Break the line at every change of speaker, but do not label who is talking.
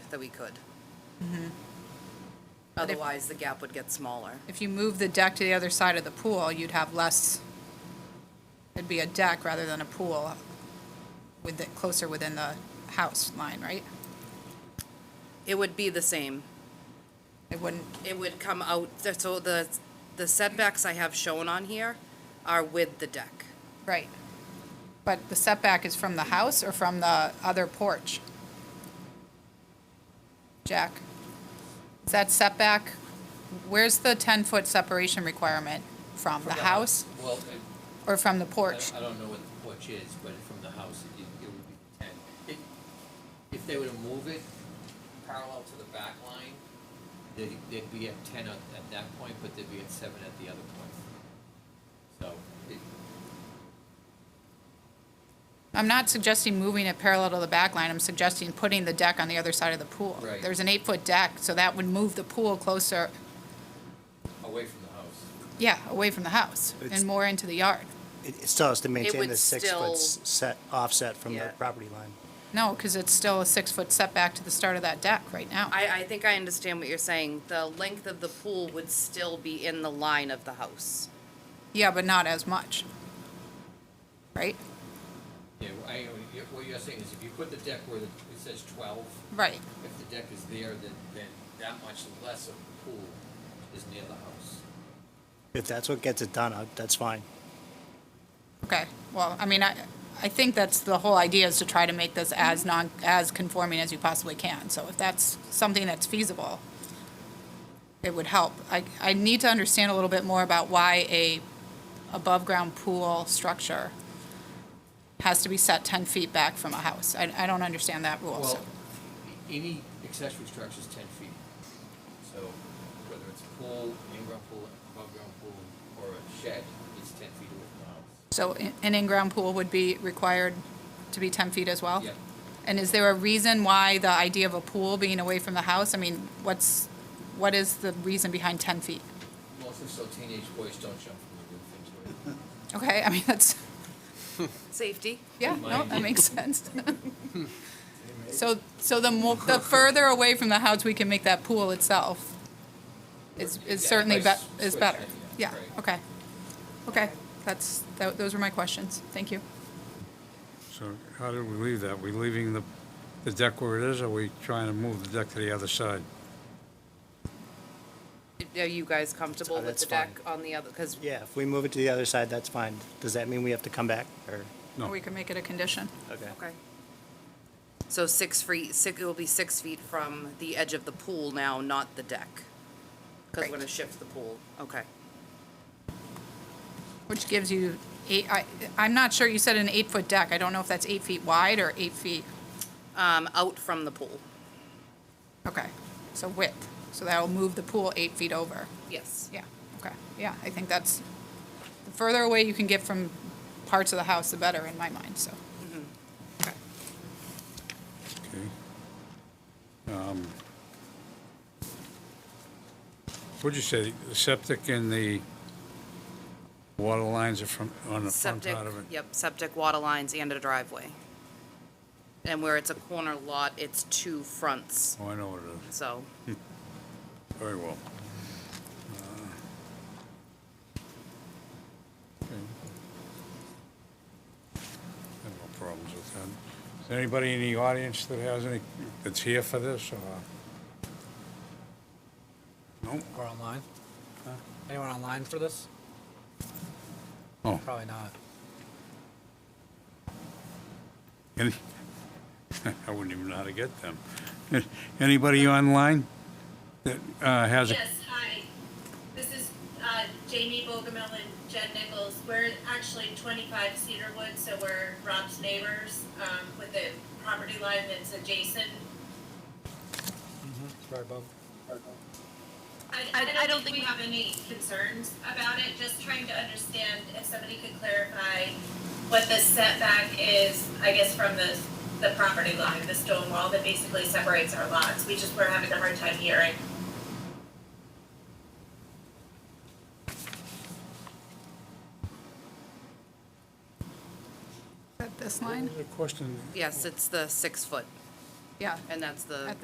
that we could. Otherwise, the gap would get smaller.
If you move the deck to the other side of the pool, you'd have less, it'd be a deck rather than a pool with it closer within the house line, right?
It would be the same.
It wouldn't,
It would come out, so the, the setbacks I have shown on here are with the deck.
right. But the setback is from the house or from the other porch? Jack? Is that setback, where's the 10-foot separation requirement? From the house
Well,
or from the
I,
porch?
I don't know what the porch is, but from the house, it, it would be ten. If, if they were to move it parallel to the back line, they'd, they'd be at ten at, at that point, but they'd be at seven at the other point. So, it,
I'm not suggesting moving it parallel to the back line, I'm suggesting putting the deck on the other side of the pool.
Right.
There's an eight-foot deck, so that would move the pool closer,
away from the house.
yeah, away from the house
It's-
and more into the yard.
It it still has to maintain
would
the
still-
six-foot s- set, offset from
Yeah.
the property line.
No, because it's still a six-foot setback to the start of that deck right now.
I, I think I understand what you're saying. The length of the pool would still be in the line of the house.
Yeah, but not as much. Right?
Yeah, well, I, what you're saying is if you put the deck where the- it says twelve,
Right.
if the deck is there, then, then that much less of the pool is near the house.
If that's what gets it done, I- that's fine.
Okay, well, I mean, I, I think that's the whole idea is to try to make this as non, as conforming as you possibly can. So if that's something that's feasible, it would help. I, I need to understand a little bit more about why a above-ground pool structure has to be set ten feet back from a house. I, I don't understand that rule, so.
Well, any accessory structure is ten feet. So whether it's a pool, in-ground pool, above-ground pool, or a shed, it's ten feet away from the house.
So i- an in-ground pool would be required to be ten feet as well?
Yeah.
And is there a reason why the idea of a pool being away from the house? I mean, what's, what is the reason behind ten feet?
Mostly so teenage boys don't jump from the roof into it.
Okay, I mean, that's,
Safety?
yeah, no, that
Mind.
makes sense. So, so the more, the further away from the house we can make that pool itself is,
Yeah,
is
if
certainly
I
be,
s-
is
switch
better.
it,
Yeah,
right.
okay. Okay, that's, tho- those were my questions. Thank you.
So how do we leave that? We leaving the, the deck where it is, or we trying to move the deck to the other side?
Are you guys comfortable with
Uh, that's
the deck on the other, because
Yeah, if we move it to the other side, that's fine. Does that mean we have to come back, or?
No.
Or we can make it a condition.
Okay. So six feet, six, it will be six feet from the edge of the pool now, not the deck. Because we're
Right.
gonna shift the pool, okay.
Which gives you eight, I, I'm not sure, you said an eight-foot deck, I don't know if that's eight feet wide or eight feet,
Um, out from the pool,
okay, so width, so that'll move the pool eight feet over,
yes.
yeah, okay, yeah, I think that's, the further away you can get from parts of the house, the better in my mind, so. Okay.
Okay. Um, What'd you say, the septic and the water lines are from, on the front
Septic,
part of it?
yep, septic water lines and a driveway. And where it's a corner lot, it's two fronts,
Oh, I know what it is,
so,
very well. Uh, okay. I have no problems with that. Is there anybody in the audience that has any, that's here for this, or? No?
Or online? Huh? Anyone online for this?
Oh,
Probably not.
any, I wouldn't even know how to get them. Anybody online that uh, has a?
Yes, hi. This is uh, Jamie Bogomil and Jen Nichols. We're actually 25 Cedarwood, so we're Rob's neighbors um, with the property line that's adjacent.
It's right above.
I, I, I don't think we have any concerns about it, just trying to understand if somebody could clarify what the setback is, I guess, from the, the property line, the stone wall that basically separates our lots. We just were having a hard time hearing.
Is that this line?
Question.
yes, it's the six foot,
Yeah,
and that's the.
At